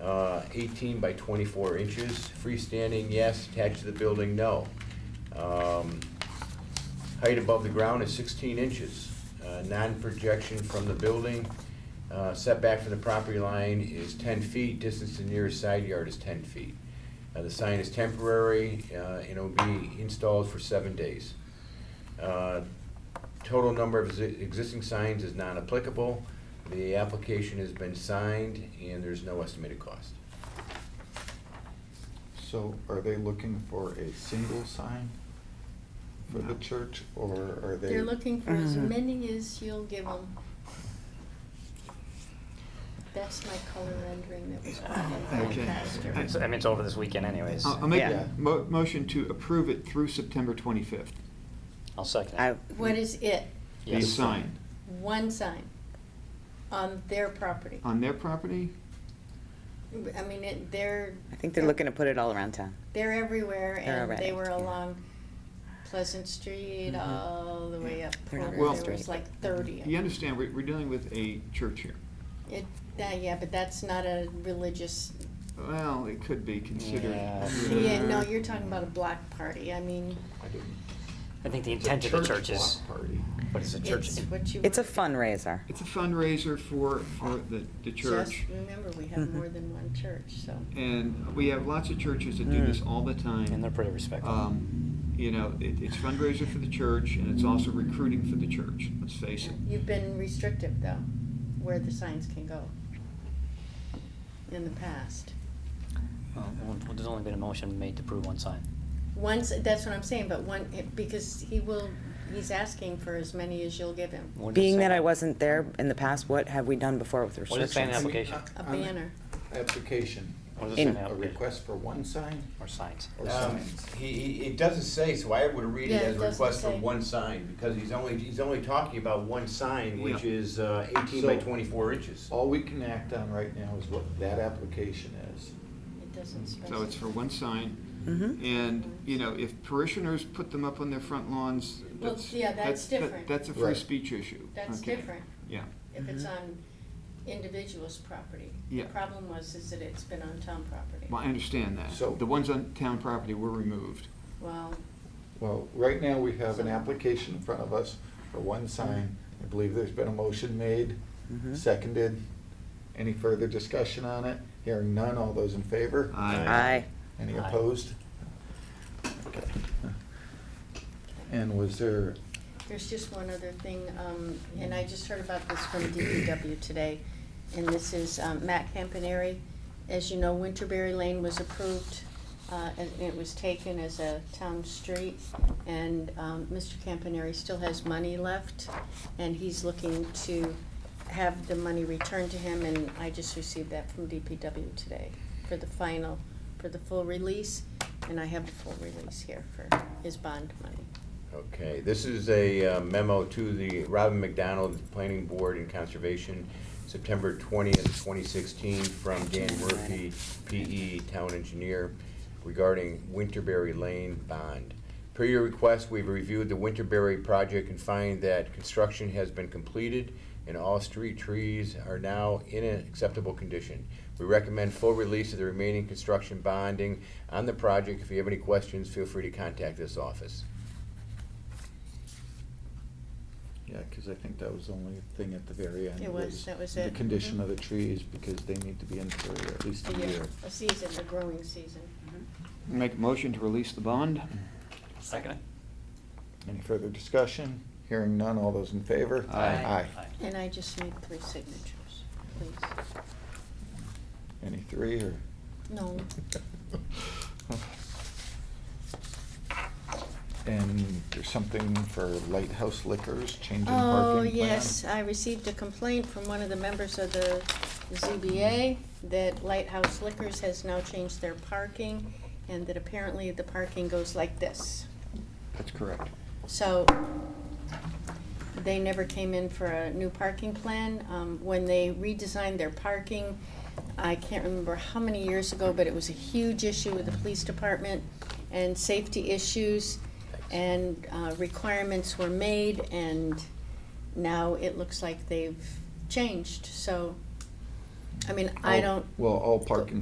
uh, 18 by 24 inches. Freestanding, yes. Attached to the building, no. Um, Height above the ground is 16 inches. Uh, Non-projection from the building, uh, setback from the property line is 10 feet, distance to nearest side yard is 10 feet. Uh, The sign is temporary, uh, and it'll be installed for seven days. Uh, Total number of exi- existing signs is non-applicable. The application has been signed, and there's no estimated cost. So are they looking for a single sign for the church, or are they? They're looking for as Uh-huh. Uh. many as you'll give them. That's my color rendering that was put in by Okay. Pastor. I- It's- I mean, it's over this weekend anyways. I'll I'll make Yeah. a mo- motion to approve it through September 25th. I'll second I, it. What is it? The Yes. sign One sign on their property. on their property? I mean, it, they're. I think they're looking to put it all around town. They're everywhere They're and they already, were yeah. along Pleasant Street, Mhm. all the way up. They're not Clover. Well- There was like thirty. of Mm-hmm. You them. understand, we're we're dealing with a church here. It, uh, yeah, but that's not a religious, Well, it could be considered. Yeah. yeah, no, you're talking about a block party. I mean, I didn't- I think the It's a intent of the church is, block Party. but it's a church. it's what you. It's a want. fundraiser. It's a fundraiser for, for the, the church. Just remember, we have Mhm. more than one church, so. And we have lots of churches that do this all the time. Mm. And they're pretty respectful. Um, You know, it, it's fundraiser for the church, and it's also recruiting for the church, let's face it. You've been restrictive, though, where the signs can go in the past. Well, um, well, There's only been a motion made to approve one sign. Once, that's what I'm saying, but one, because he will, he's asking for as many as you'll give him. What does it Being say that in- I wasn't there in the past, what have we done before with What does it say in the restrictions? application? A On the banner. Application. What does it say in In- the A application? request for one sign? Or signs? Or Um, signs? He, he, it doesn't say, so I would read it Yeah, it as a doesn't request for say. one sign, because he's only, he's only talking about one sign, which Yeah. is uh, eighteen by So- twenty-four inches. All we can act on right now is what that application is. It doesn't specify. So it's for one sign. Mm-hmm. Mhm. And, you know, if parishioners put them up on their front lawns, Well, that's. yeah, that's that- different. That's a free Right. speech issue. That's Okay. different Yeah. if it's Mhm. on individuals' property. Mm-hmm. Yeah. The problem was, is that it's been on town property. Well, I understand that. So- The ones on town property were removed. Well, Well, right now, we have an application in front of us for one sign. I believe there's been a motion made, Mhm. seconded. Any further discussion on it? Hearing none, all those in favor? Aye. Aye. Any Aye. opposed? Okay. And was there, There's just one other thing, um, and I just heard about this from DPW today, and this is, um, Matt Campaneri. As you know, Winterberry Lane was approved, uh, and it was taken as a town street, and, um, Mr. Campaneri still has money left, and he's looking to have the money returned to him, and I just received that from DPW today for the final, for the full release, and I have the full release here for his bond money. Okay, this is a uh, memo to the Robin McDonald Planning Board and Conservation, September twentieth, twenty sixteen, from Dan Murphy, PE Town Engineer, regarding Winterberry Lane bond. Per your request, we've reviewed the Winterberry project and find that construction has been completed and all street trees are now in an acceptable condition. We recommend full release of the remaining construction bonding on the project. If you have any questions, feel free to contact this office. yeah, because I think that was the only thing at the very end. It was, that was The it. condition Mhm. of the trees, because they need to be in for at least a Yeah, year. a season, a growing season. Make a motion to release the bond. Second it? Any further discussion? Hearing none, all those in favor? Aye. Aye. Aye. And I just need three signatures, please. Any three, or? No, And there's something for Lighthouse Liquors, changing parking Oh, plan? yes, I received a complaint from one of the members of the ZBA that Lighthouse Liquors has now changed their parking, and that apparently the parking goes like this. That's correct. So they never came in for a new parking plan. Um, When they redesigned their parking, I can't remember how many years ago, but it was a huge issue with the police department and safety issues. And uh, requirements were made and now it looks like they've changed, so, I mean, I All- don't. Well, all parking